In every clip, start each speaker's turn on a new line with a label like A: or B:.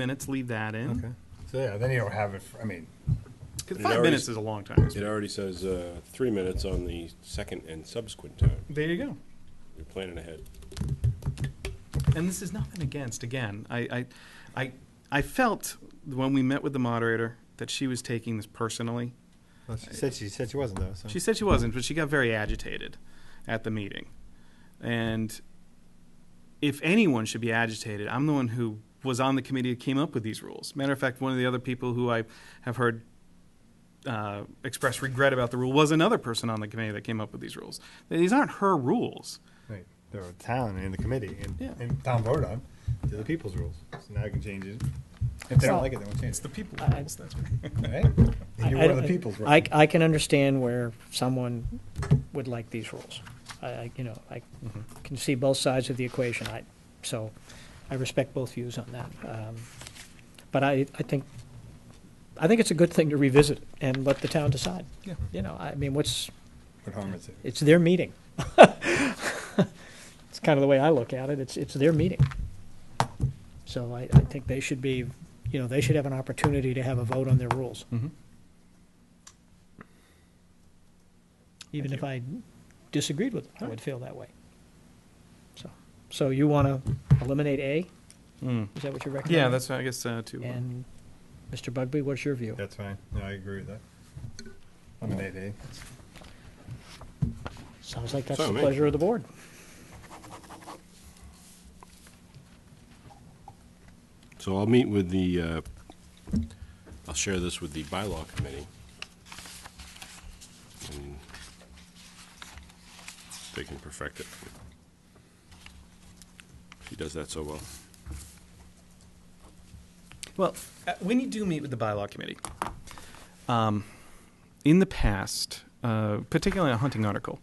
A: minutes, leave that in.
B: So, yeah, then you don't have it, for- I mean,
A: 'Cause
C: It
A: Five
C: already-
A: minutes is a long time.
C: It already says uh, three minutes on the second and subsequent time.
A: There you go.
C: You're planning ahead.
A: And this is nothing against, again, I, I, I, I felt when we met with the moderator that she was taking this personally.
B: well, she said, she said she wasn't though, so.
A: She said she wasn't, but she got very agitated at the meeting. And if anyone should be agitated, I'm the one who was on the committee that came up with these rules. Matter of fact, one of the other people who I have heard uh, express regret about the rule was another person on the committee that came up with these rules. These aren't her rules.
B: Right, they're a town and in the committee,
A: Yeah.
B: and, and town voted on, they're the people's rules, so now you can change it. If they don't like it, they won't change
A: It's the people
D: I-
A: rules. That's right.
B: it, right? And you're one of the
D: I-
B: people's,
D: I,
B: right?
D: I can understand where someone would like these rules. I, I, you know, I
B: Mm-hmm.
D: can see both sides of the equation. I, so I respect both views on that. Um, But I, I think, I think it's a good thing to revisit and let the town decide.
A: Yeah.
D: You know, I mean, what's,
B: What harm is it?
D: it's their meeting. It's kind of the way I look at it. It's, it's their meeting. So I, I think they should be, you know, they should have an opportunity to have a vote on their rules.
A: Mm-hmm.
D: Even if I disagreed with it, I would feel that way. So, so you want to eliminate A?
A: Mm.
D: Is that what you're recommending?
A: Yeah, that's I guess uh, too.
D: And Mr. Bugby, what's your view?
B: That's fine, no, I agree with that. Eliminate A.
D: Sounds like that's
C: Sorry,
D: the
C: mate.
D: pleasure of the board.
C: So I'll meet with the, uh, I'll share this with the bylaw committee. And They can perfect it. She does that so well.
A: Well, uh, when you do meet with the bylaw committee, um, in the past, uh, particularly on a hunting article,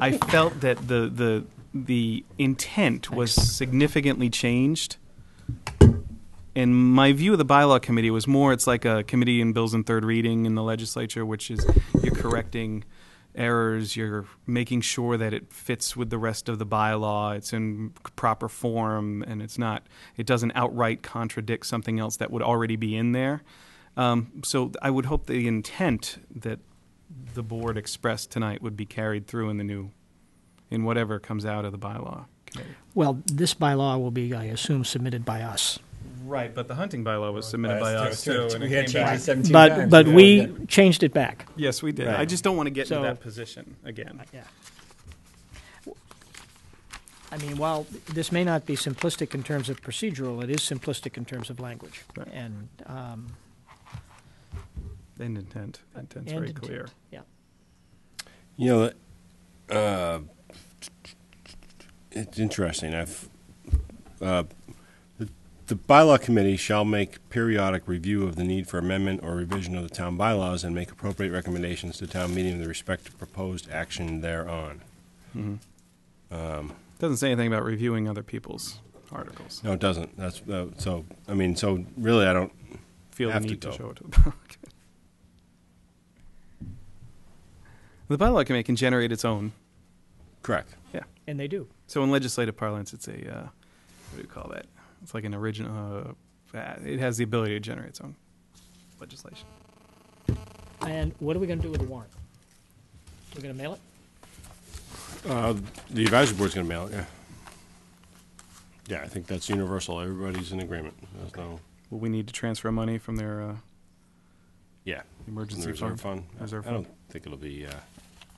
A: I felt that the the the intent was significantly changed. And my view of the bylaw committee was more it's like a committee in bills and third reading in the legislature, which is you're correcting errors, you're making sure that it fits with the rest of the bylaw, it's in proper form, and it's not, it doesn't outright contradict something else that would already be in there. Um, so I would hope the intent that the board expressed tonight would be carried through in the new, in whatever comes out of the bylaw committee.
D: Well, this bylaw will be, I assume, submitted by us.
A: Right, but the hunting bylaw was submitted by
B: Last
A: us
B: year,
A: too.
B: two-
A: and
B: we
A: it
B: had
A: came
B: changed
A: back-
B: it 17
D: But,
B: times,
D: but
B: yeah.
D: we changed it back.
A: Yes, we did. I
B: Right.
A: just don't want to get
D: So-
A: into that position again.
D: Yeah. I mean, while this may not be simplistic in terms of procedural, it is simplistic in terms of language.
A: Right.
D: And, um,
A: And intent, intent's
D: and
A: very
D: intent.
A: clear.
D: Yeah.
C: You know, uh, it's interesting. I've uh, the, the bylaw committee shall make periodic review of the need for amendment or revision of the town bylaws and make appropriate recommendations to town meeting with respect to proposed action thereon.
A: Doesn't say anything about reviewing other people's articles.
C: No, it doesn't. That's uh, so. I mean, so really, I don't.
A: Feel the
C: Have to
A: need to
C: go.
A: show it to the bylaw committee. The bylaw committee can generate its own.
C: Correct.
A: Yeah.
D: and they do.
A: So in legislative parlance, it's a uh, what do you call that? It's like an original. Uh, uh, it has the ability to generate its own legislation.
D: And what are we going to do with the warrant? We're going to mail it?
C: The advisory board's going to mail it. Yeah. Yeah, I think that's universal. Everybody's in agreement. There's no.
A: Will we need to transfer money from their uh,
C: Yeah.
A: emergency
C: the reserve
A: fund?
C: fund.
A: Reserve
C: I don't think it'll be, uh,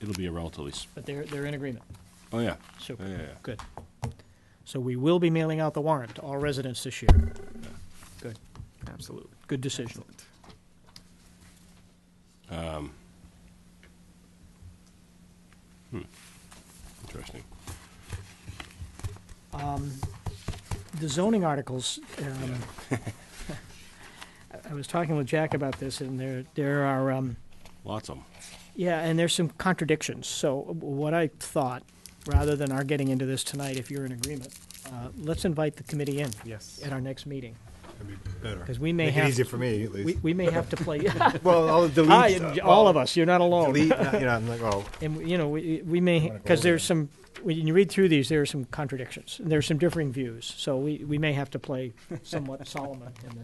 C: it'll be a relatively, s-
D: But they're, they're in agreement.
C: oh, yeah.
D: Super.
C: Yeah, yeah, yeah.
D: Good. So we will be mailing out the warrant to all residents this year. Good.
A: Absolutely.
D: Good decision.
C: Interesting.
D: the zoning articles, um, I- I was talking with Jack about this, and there, there are, um,
C: Lots of them.
D: yeah, and there's some contradictions. So what I thought, rather than our getting into this tonight, if you're in agreement, uh, let's invite the committee in
A: Yes.
D: at our next meeting,
B: That'd be better.
D: because we may
B: Make it
D: have,
B: easier for me, at
D: we,
B: least.
D: we may have to play,
B: Well, I'll
D: I
B: delete.
D: and
B: uh,
D: all
B: well,
D: of us, you're not alone.
B: Delete, not- you know, I'm like, oh,
D: And, you know, we, we may,
B: wanna go
D: because
B: over
D: there's
B: that?
D: some, when you read through these, there are some contradictions, and there's some differing views. So we, we may have to play somewhat Solomon in this.